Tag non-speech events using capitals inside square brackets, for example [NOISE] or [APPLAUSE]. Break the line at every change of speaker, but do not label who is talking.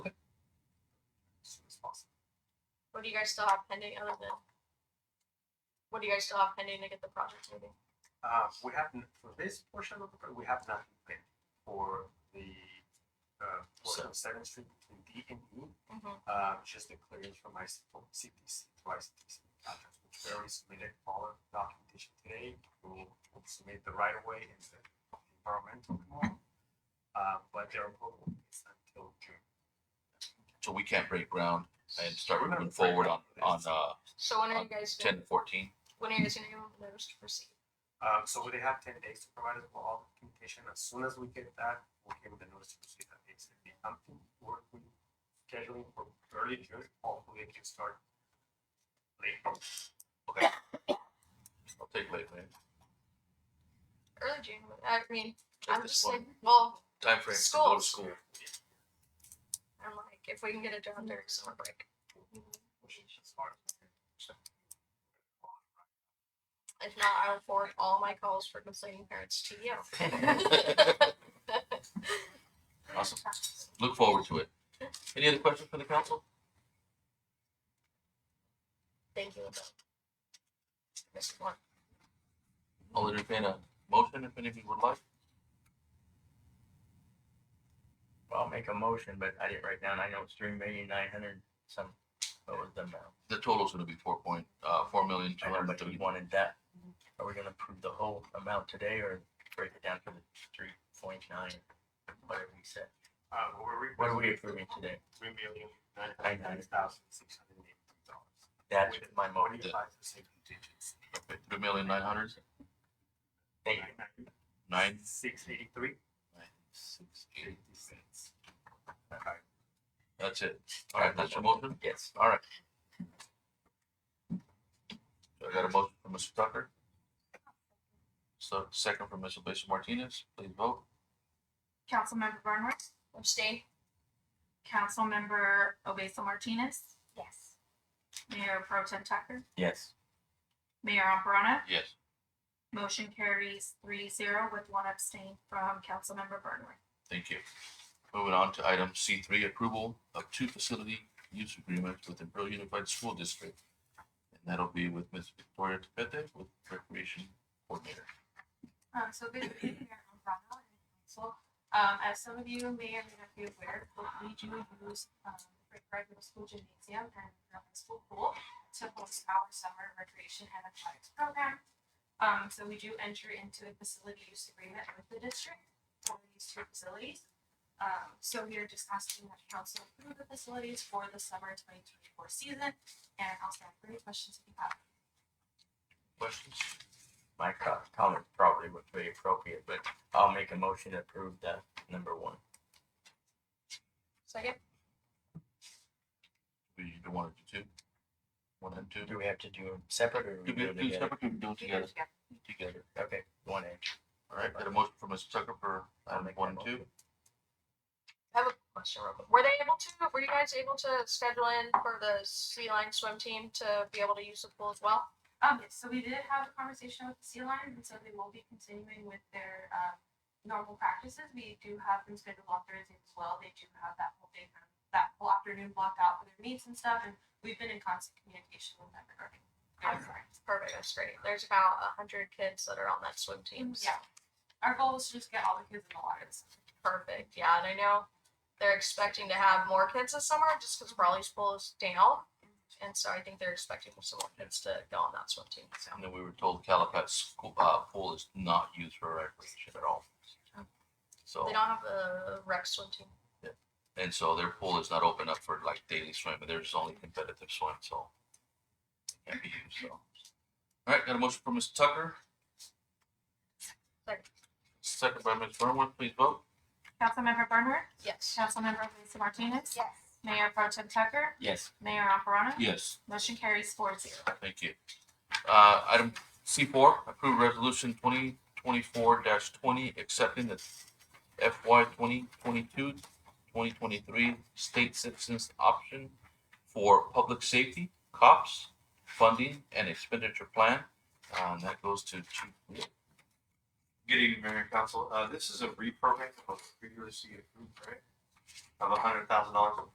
What do you guys still have pending other than? What do you guys still have pending to get the project moving?
Uh, we have, n- for this portion of the, pro- we have nothing planned for the, uh, portion of Seventh Street between D and E.
Mhm.
Uh, just the clearance from my C- from CTC, to ICTC contract, which we already submitted all the documentation today. We'll we'll submit the right of way and the environmental tomorrow. Uh, but their approval is until June.
So we can't break ground and start
We're not
moving
breaking
forward on, on,
ground.
uh,
So when are
Uh,
you guys? gonna-
ten to fourteen.
When are you guys gonna give them the notice to proceed?
Um, so they have ten days to provide us with all the documentation. As soon as we get that, we'll give the notice to proceed that it's the something work we scheduling for early June, hopefully it can start late.
Okay. I'll take late, man.
Early June. but- I mean,
Take
I'm
this
just
one.
like, well,
Time frame to go to
Schools.
school.
I'm like, if we can get it done during summer break,
Which is just hard.
if not, I will forward all my calls for complaining parents to you.
[LAUGHS]
[LAUGHS]
Awesome. [LAUGHS] Look forward to it. Any other questions for the council?
Thank you. Adele. Missed one.
I'll entertain a motion if any of you would like.
I'll make a motion, but I didn't write down, I know it's three million nine hundred some, what was the amount?
The total's gonna be four point, uh, four million, two
I know,
hundred and
but we
thirty.
wanted that, are we gonna approve the whole amount today or break it down to the three point nine? Whatever we said,
Uh, we're
what are
requesting
we approving today?
three million nine hundred ninety thousand six hundred and eighty-three dollars.
That's my motion,
Twenty-five percent contingency.
Three million, nine hundred,
thank you.
nine,
Six eighty-three.
six, eight.
Eighty cents. Okay.
That's it. All right, that's your motion?
Yes,
All right. So I got a motion from Mr. Tucker. So second from Mr. Bishop Martinez, please vote.
Councilmember Bernhardt,
Abstain.
Councilmember Obesa Martinez. Yes. Mayor Pro Tem Tucker,
yes,
Mayor Alperona,
Yes.
motion carries three zero with one abstain from Councilmember Bernhardt.
Thank you. Moving on to item C three, approval of two facility use agreements with the Imperial Unified School District. And that'll be with Ms. Victoria Tepete with Recreation Coordinator.
Um, so good evening, Mayor Alperona and Council. Um, as some of you may or may not be aware, but we do use, um, the Great Middle School Gymnasium and the High School Pool to host our summer recreation and athletics program. Um, so we do enter into a facility use agreement with the district for these two facilities. Um, so we are just asking that council approve the facilities for the summer twenty twenty-four season, and I'll start with any questions if you have.
Questions?
my co- comment probably was very appropriate, but I'll make a motion to approve that number one.
Second.
Do you do one or two? One and two?
Do we have to do them separate or
Do
do we do
we
it
do
together?
separate, or do it together? Together.
Okay, one A,
All right, got a motion from Mr. Tucker for
I'll
item
make that
one and two.
motion.
I have a question real quick. Were they able to, were you guys able to schedule in for the sea line swim team to be able to use the pool as well?
Um, yes, so we did have a conversation with the Sea Lions, and so they will be continuing with their, um, normal practices. We do have them scheduled on Thursdays as well. They do have that whole day, kind of- that whole afternoon blocked out for their meets and stuff, and we've been in constant communication with them regarding. their
Okay.
plans.
Perfect, that's great. There's about a hundred kids that are on that swim team. so-
Mm, Yeah, our goal is to just get all the kids in the water. this summer.
Perfect, yeah, and I know they're expecting to have more kids this summer just because Raleigh's pool is down. And so I think they're expecting some more kids to go on that swim team, so.
And then we were told Calapat school, uh, pool is not used for recreation at all. So.
They don't have the rec swim team.
And so their pool is not open up for like daily swim, but there's only competitive swim, so it can't be used, so. All right, got a motion from Mr. Tucker.
Second.
Second by Ms. Burnworth, please vote.
Councilmember Bernhardt,
Yes.
Councilmember Lisa Martinez,
Yes.
Mayor Pro Tem Tucker,
yes.
Mayor Alperona,
Yes.
motion carries four zero.
Thank you. Uh, item C four, approve resolution twenty twenty-four twenty, accepting the FY 2022-2023 state citizens option for public safety, cops, funding and expenditure plan. Um, that goes to Chief Wheeler.
Good evening, Mayor and Council. Uh, this is a reprogram of previously approved, right? Of a hundred thousand dollars